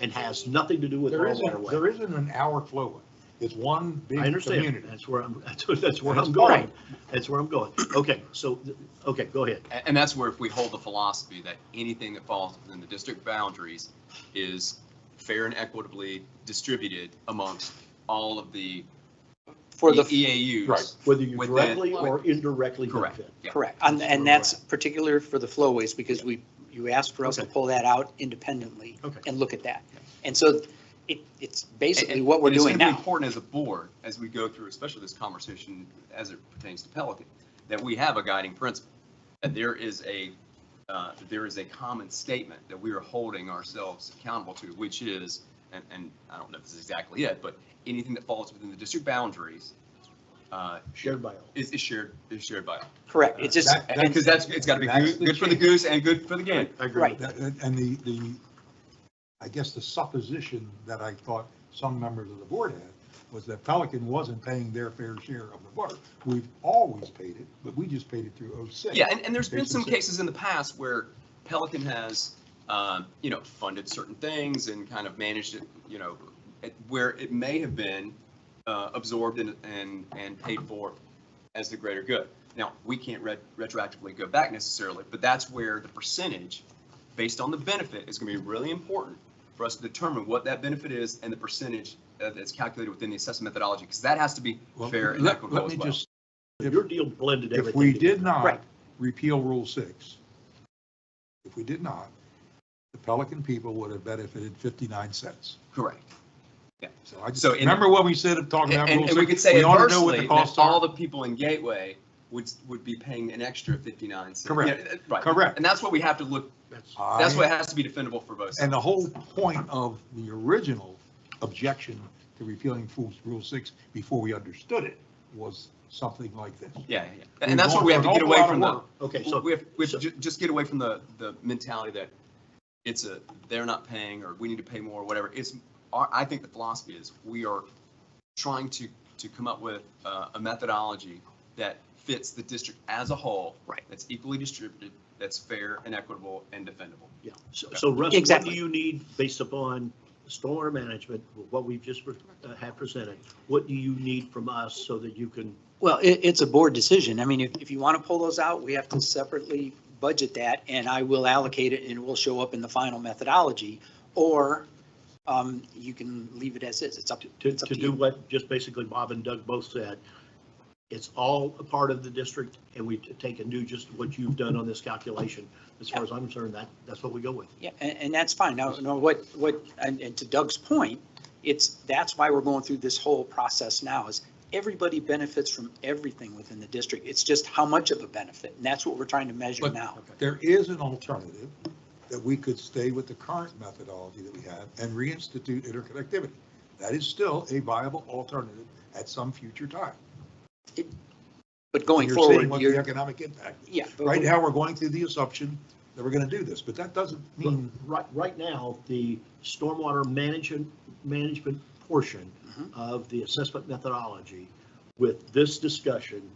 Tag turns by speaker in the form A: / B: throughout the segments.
A: and has nothing to do with
B: There
A: rural
B: isn't,
A: waterway.
B: there isn't an hour flowing. It's one big
A: I understand.
B: community.
A: That's where I'm, that's where- that's where
B: That's
A: I'm going.
B: fine.
A: That's where I'm going. Okay, so, th- okay, go ahead.
C: A- And that's where if we hold the philosophy that anything that falls within the district boundaries is fair and equitably distributed amongst all of the
D: for
C: E,
D: the,
C: EAUs.
B: Right.
A: Whether you
C: With the-
A: directly or indirectly
C: Correct.
A: benefit.
C: Yeah.
D: correct, and, and that's particular for the flowways, because we, you asked for us to
A: Okay.
D: pull that out independently
A: Okay.
D: and look at that.
C: Yeah.
D: And so it, it's basically
C: And-
D: what we're
C: and it's
D: doing
C: gonna be
D: now.
C: Important as a board, as we go through, especially this conversation as it pertains to Pelican, that we have a guiding principle, that there is a, uh, that there is a common statement that we are holding ourselves accountable to, which is, and, and I don't know if this is exactly it, but anything that falls within the district boundaries uh,
A: Shared by all.
C: is, is shared, is shared by all.
D: Correct, it's just,
B: That-
D: and
C: Because that's, it's got to be
B: That's
C: good
B: the
C: good for the
B: change.
C: goose and good for the gander.
A: I agree.
D: Right.
B: That- And and the, the, I guess the supposition that I thought some members of the board had was that Pelican wasn't paying their fair share of the water. We've always paid it, but we just paid it through 06.
C: Yeah, and, and there's been some
B: Basically.
C: cases in the past where Pelican has, um, you know, funded certain things and kind of managed it, you know, it- where it may have been uh, absorbed and, and, and paid for as the greater good. Now, we can't ret- retroactively go back necessarily, but that's where the percentage, based on the benefit, is going to be really important for us to determine what that benefit is and the percentage uh, that's calculated within the assessment methodology, because that has to be
B: Well,
C: fair and
B: let-
C: equitable as
B: Let me
C: well.
B: just,
A: Your deal blended everything.
B: if we
A: together.
B: did not
D: Right.
B: repeal Rule 6, if we did not, the Pelican people would have benefited 59 cents.
C: Correct.
B: So I just,
C: So in-
B: remember what we said of talking about
C: And,
B: Rule
C: and
B: 6?
C: we could say
B: ought to know what
C: adversely,
B: the
C: that
B: costs
C: all
B: are.
C: the people in Gateway would, would be paying an extra 59 cents.
B: Correct.
C: Yeah, uh, Right,
B: Correct.
C: and that's what we have to look,
A: That's-
C: that's
B: I-
C: what has to be defendable for both.
B: And
C: sides.
B: the whole point of the original objection to repealing Fools Rule 6 before we understood it was something like this.
C: Yeah, yeah, yeah.
B: We're
C: and that's what
B: going
C: we have
B: through
C: to get
B: an awful
C: away
B: lot of
C: from the,
B: work.
A: Okay, so.
C: we have, we have
A: so-
C: to ju- just get away from the, the mentality that it's a, they're not paying, or we need to pay more, or whatever. It's, our- I think the philosophy is, we are trying to, to come up with uh, a methodology that fits the district as a whole.
D: Right.
C: That's equally distributed, that's fair and equitable and defendable.
A: Yeah, so so Russ, what do
D: Exactly.
A: you need based upon stormwater management, what we've just pre- uh, have presented? What do you need from us so that you can,
D: well, it, it's a board decision. I mean, if, if you want to pull those out, we have to separately budget that, and I will allocate it, and it will show up in the final methodology. Or, um, you can leave it as is, it's up to,
A: to,
D: It's up
A: to
D: to
A: do
D: you.
A: what just basically Bob and Doug both said? It's all a part of the district and we t- take and do just what you've done on this calculation. As far as I'm concerned, that, that's what we go with.
D: Yeah, and, and that's fine. Now, no, what, what, and, and to Doug's point, it's, that's why we're going through this whole process now is everybody benefits from everything within the district. It's just how much of a benefit, and that's what we're trying to measure
B: But-
D: now.
B: There is an alternative that we could stay with the current methodology that we have and reinstitute interconnectivity. That is still a viable alternative at some future time.
D: But going
B: You're seeing
D: forward,
B: What the
D: you're,
B: economic impact. is.
D: yeah. but-
B: Right now, we're going through the assumption that we're going to do this, but that doesn't
A: But
B: mean
A: Right, right now, the stormwater management, management portion
D: Mhm.
A: of the assessment methodology with this discussion,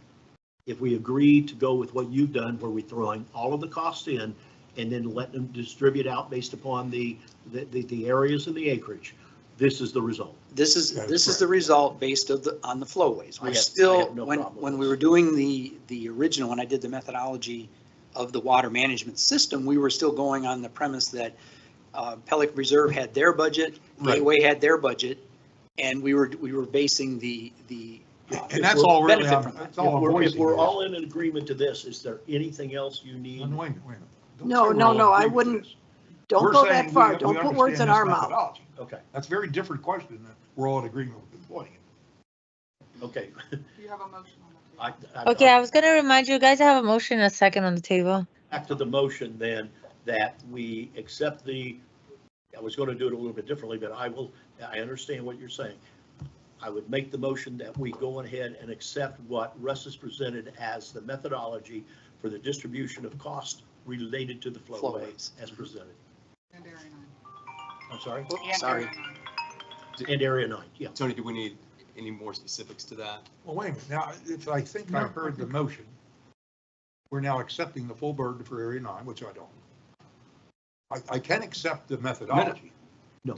A: if we agree to go with what you've done, where we're throwing all of the costs in and then let them distribute out based upon the, the, the- the areas and the acreage, this is the result.
D: This is,
B: That is
D: this is
B: correct.
D: the result based of the, on the flowways.
A: I have-
D: We're
A: I
D: still,
A: have no
D: when,
A: problem with
D: when
A: this.
D: we were doing the, the original, when I did the methodology of the water management system, we were still going on the premise that uh, Pelican Reserve had their budget,
B: Right.
D: Gateway had their budget, and we were, we were basing the, the. uh,
B: And that's all really,
D: benefit
B: I'm-
D: from that.
B: that's
A: If
B: all I'm
A: we're, if
B: voicing.
A: we're
B: here.
A: all in agreement to this, is there anything else you need?
B: Wait a minute, wait a minute. Don't
E: No,
B: say we're
E: no,
B: all
E: no, I
B: agreeing with
E: wouldn't-
B: this. We're
E: Don't go
B: saying
E: that
B: we-
E: far.
B: we
E: Don't put
B: understand
E: words in
B: this
E: our mouth.
B: methodology.
A: Okay,
B: That's a very different question than we're all in agreement with employing.
A: okay.
F: You have a motion on the table.
A: I- I-
G: Okay, I was gonna remind you guys, I have a motion and a second on the table.
A: back to the motion then, that we accept the, I was going to do it a little bit differently, but I will, I understand what you're saying. I would make the motion that we go ahead and accept what Russ has presented as the methodology for the distribution of cost related to the flowways
D: Flowways.
A: as presented.
F: And Darren, aye.
A: I'm sorry,
F: And
D: Sorry.
F: Darren, aye.
A: and Area 9, yeah.
C: Tony, do we need any more specifics to that?
B: Well, wait a minute, now, if I think I heard the motion, we're now accepting the full burden for Area 9, which I don't. I, I can accept the methodology.